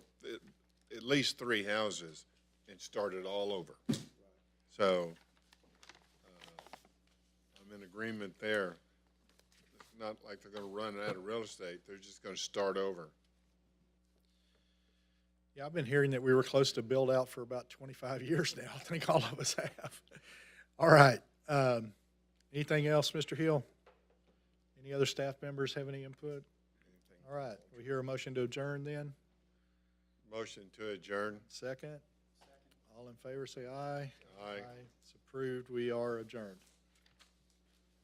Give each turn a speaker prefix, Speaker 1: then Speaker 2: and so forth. Speaker 1: least three houses and started all over. So uh, I'm in agreement there. It's not like they're going to run out of real estate. They're just going to start over.
Speaker 2: Yeah, I've been hearing that we were close to build out for about 25 years now. I think all of us have. All right. um, Anything else, Mr. Hill? Any other staff members have any input? All right, we hear a motion to adjourn then.
Speaker 1: Motion to adjourn.
Speaker 2: Second? All in favor, say aye.
Speaker 1: Aye.
Speaker 2: It's approved. We are adjourned.